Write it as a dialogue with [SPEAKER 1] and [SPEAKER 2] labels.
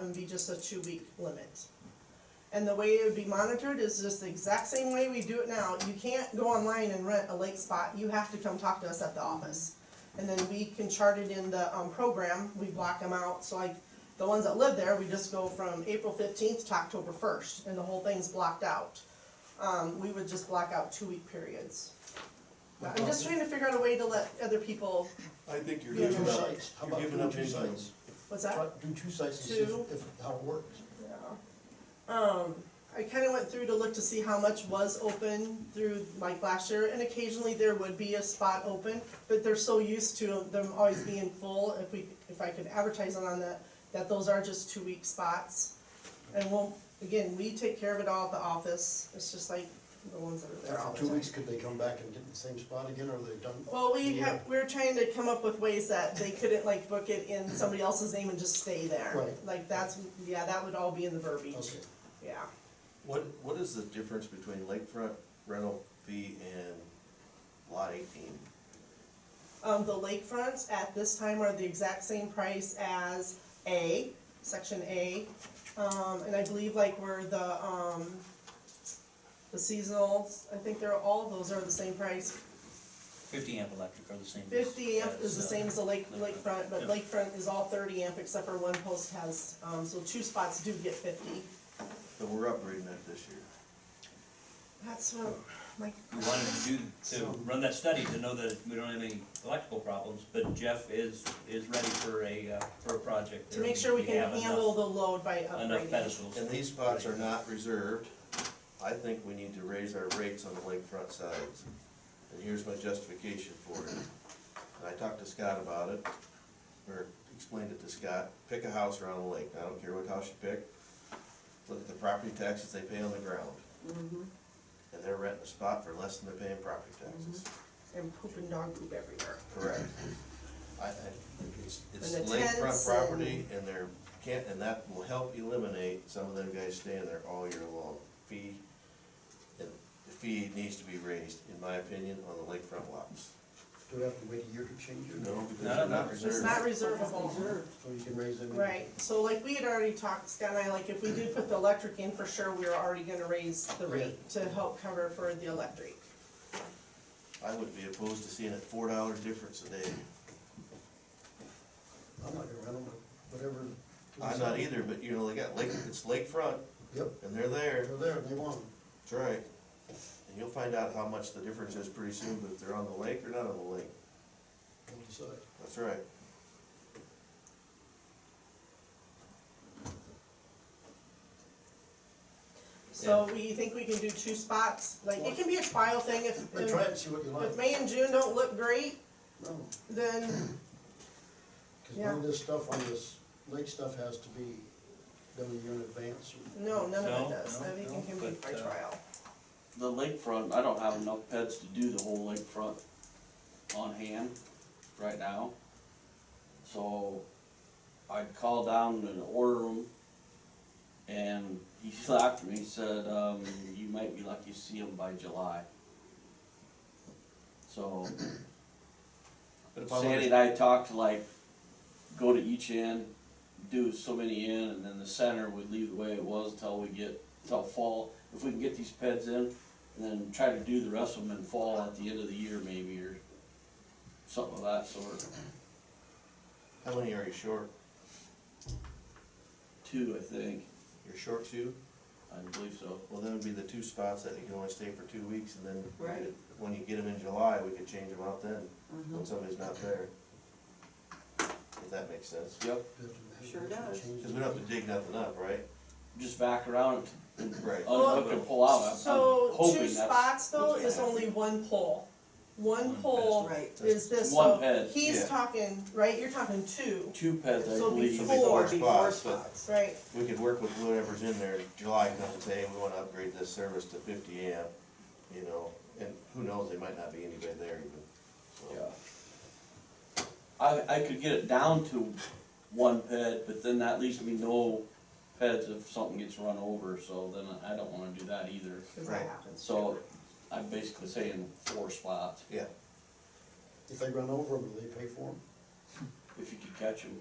[SPEAKER 1] them be just a two-week limit. And the way it would be monitored is just the exact same way we do it now. You can't go online and rent a lake spot. You have to come talk to us at the office. And then we can chart it in the, um, program. We block them out. So like, the ones that live there, we just go from April fifteenth to October first, and the whole thing's blocked out. Um, we would just block out two-week periods. I'm just trying to figure out a way to let other people,
[SPEAKER 2] I think you're
[SPEAKER 1] Yeah,
[SPEAKER 2] giving
[SPEAKER 1] no,
[SPEAKER 2] up,
[SPEAKER 3] sites. How
[SPEAKER 2] you're
[SPEAKER 3] about
[SPEAKER 2] giving
[SPEAKER 3] doing
[SPEAKER 2] up
[SPEAKER 3] two
[SPEAKER 2] income.
[SPEAKER 3] sites?
[SPEAKER 1] what's that?
[SPEAKER 3] Try- Do two sites and see if,
[SPEAKER 1] Two.
[SPEAKER 3] if- how it works.
[SPEAKER 1] Yeah. Um, I kinda went through to look to see how much was open through like last year, and occasionally there would be a spot open, but they're so used to them always being full, if we, if I could advertise on that, that those are just two-week spots. And we'll, again, we take care of it all at the office, it's just like the ones that are there all the
[SPEAKER 3] After
[SPEAKER 1] time.
[SPEAKER 3] two weeks, could they come back and get the same spot again, or they've done?
[SPEAKER 1] Well, we
[SPEAKER 3] Yeah.
[SPEAKER 1] have, we were trying to come up with ways that they couldn't like book it in somebody else's name and just stay there.
[SPEAKER 3] Right.
[SPEAKER 1] Like that's, yeah, that would all be in the verbiage,
[SPEAKER 3] Okay,
[SPEAKER 1] yeah.
[SPEAKER 4] What, what is the difference between lakefront rental fee and lot eighteen?
[SPEAKER 1] Um, the lakefronts at this time are the exact same price as A, section A. Um, and I believe like where the, um, the seasonals, I think they're, all of those are the same price.
[SPEAKER 5] Fifty amp electric are the same. as-
[SPEAKER 1] Fifty amp is the
[SPEAKER 5] as, uh,
[SPEAKER 1] same as the lake, lakefront, but
[SPEAKER 5] Yeah.
[SPEAKER 1] lakefront is all thirty amp except for one post has, um, so two spots do get fifty.
[SPEAKER 4] And we're upgrading that this year.
[SPEAKER 1] That's what, like,
[SPEAKER 5] We wanted to do, to run that study to know that we don't have any electrical problems, but Jeff is, is ready for a, uh, for a project.
[SPEAKER 1] to
[SPEAKER 5] there.
[SPEAKER 1] make sure we can
[SPEAKER 5] have enough-
[SPEAKER 1] handle the load by
[SPEAKER 5] Enough
[SPEAKER 1] upgrading.
[SPEAKER 5] pedestals.
[SPEAKER 4] And these spots are not reserved. I think we need to raise our rates on the lakefront sides. And here's my justification for it. And I talked to Scott about it, or explained it to Scott. Pick a house around the lake. I don't care what house you pick. Look at the property taxes they pay on the ground. And they're renting a spot for less than they're paying property taxes.
[SPEAKER 1] And poop and dog poop everywhere.
[SPEAKER 4] Correct. I, I, it's, it's
[SPEAKER 1] And the tents
[SPEAKER 4] lakefront
[SPEAKER 1] and-
[SPEAKER 4] property and there can't, and that will help eliminate some of them guys staying there all year long. Fee, and the fee needs to be raised, in my opinion, on the lakefront lots.
[SPEAKER 3] do we have to wait a year to change it?
[SPEAKER 4] No, because
[SPEAKER 5] No,
[SPEAKER 4] they're
[SPEAKER 5] no,
[SPEAKER 4] not
[SPEAKER 5] it's
[SPEAKER 1] It's not
[SPEAKER 4] reserved.
[SPEAKER 1] reservable.
[SPEAKER 3] So you can raise them? in-
[SPEAKER 1] Right, so like we had already talked, Scott and I, like if we did put the electric in for sure, we were already gonna raise the rate to help cover for the electric.
[SPEAKER 4] I would be opposed to seeing a four dollar difference a day.
[SPEAKER 3] I'm not gonna rent them, but whatever.
[SPEAKER 4] I'm not either, but you know, they got lake, it's lakefront
[SPEAKER 3] Yep,
[SPEAKER 4] and they're there.
[SPEAKER 3] they're there, they want 'em.
[SPEAKER 4] That's right. And you'll find out how much the difference is pretty soon, but if they're on the lake or not on the lake.
[SPEAKER 3] we'll decide.
[SPEAKER 4] That's right.
[SPEAKER 1] So we think we can do two spots, like it can be a trial thing if,
[SPEAKER 3] Hey, try it and see what you like.
[SPEAKER 1] if May and June don't look great,
[SPEAKER 3] No,
[SPEAKER 1] then,
[SPEAKER 3] cause
[SPEAKER 1] Yeah.
[SPEAKER 3] none of this stuff on this lake stuff has to be done a year in advance.
[SPEAKER 1] no, none of
[SPEAKER 5] No,
[SPEAKER 1] it does,
[SPEAKER 5] no,
[SPEAKER 1] everything can be
[SPEAKER 5] but,
[SPEAKER 1] by
[SPEAKER 5] uh,
[SPEAKER 1] trial.
[SPEAKER 6] The lakefront, I don't have enough pets to do the whole lakefront on hand right now. So I'd call down and order them. And he slapped me, said, um, you might be lucky to see them by July. So
[SPEAKER 4] But if I
[SPEAKER 6] Sandy
[SPEAKER 4] wanted,
[SPEAKER 6] and I talked to like, go to each end, do so many in, and then the center would leave the way it was until we get, until fall. If we can get these peds in, and then try to do the rest of them in fall at the end of the year maybe, or something of that sort.
[SPEAKER 4] how many are you short?
[SPEAKER 6] Two, I think,
[SPEAKER 4] You're short two?
[SPEAKER 6] I believe so.
[SPEAKER 4] Well, then would be the two spots that you can only stay for two weeks and then.
[SPEAKER 7] Right.
[SPEAKER 4] When you get them in July, we could change them out then,
[SPEAKER 7] Mm-hmm.
[SPEAKER 4] when somebody's not there. If that makes sense.
[SPEAKER 6] Yep,
[SPEAKER 3] You have to-
[SPEAKER 7] Sure does.
[SPEAKER 3] change
[SPEAKER 4] Cause we don't have to dig nothing up, right?
[SPEAKER 6] just back around and
[SPEAKER 4] Right.
[SPEAKER 6] unhook and pull out. Oh, I'm- I'm
[SPEAKER 1] So
[SPEAKER 6] hoping
[SPEAKER 1] two
[SPEAKER 6] that's
[SPEAKER 1] spots though
[SPEAKER 6] what's gonna
[SPEAKER 1] is
[SPEAKER 6] happen.
[SPEAKER 1] only one pole. One
[SPEAKER 5] One
[SPEAKER 1] pole
[SPEAKER 7] Right.
[SPEAKER 1] is this,
[SPEAKER 6] One
[SPEAKER 1] so
[SPEAKER 6] ped,
[SPEAKER 1] he's
[SPEAKER 4] yeah.
[SPEAKER 1] talking, right, you're talking two,
[SPEAKER 6] Two peds, I
[SPEAKER 1] So it'd be
[SPEAKER 6] believe.
[SPEAKER 4] So
[SPEAKER 1] four.
[SPEAKER 4] it'd be
[SPEAKER 7] Four
[SPEAKER 4] spots, but
[SPEAKER 7] spots.
[SPEAKER 1] right?
[SPEAKER 4] We could work with whatever's in there, July comes and say, hey, we wanna upgrade this service to fifty amp, you know, and who knows, there might not be anybody there even,
[SPEAKER 6] Yeah.
[SPEAKER 4] so.
[SPEAKER 6] I, I could get it down to one ped, but then that leaves me no peds if something gets run over, so then I don't wanna do that either.
[SPEAKER 1] Cause that
[SPEAKER 4] Right.
[SPEAKER 1] happens.
[SPEAKER 6] So I'm basically saying four spots,
[SPEAKER 4] Yeah,
[SPEAKER 3] If they run over them, do they pay for them?
[SPEAKER 6] if you could catch them.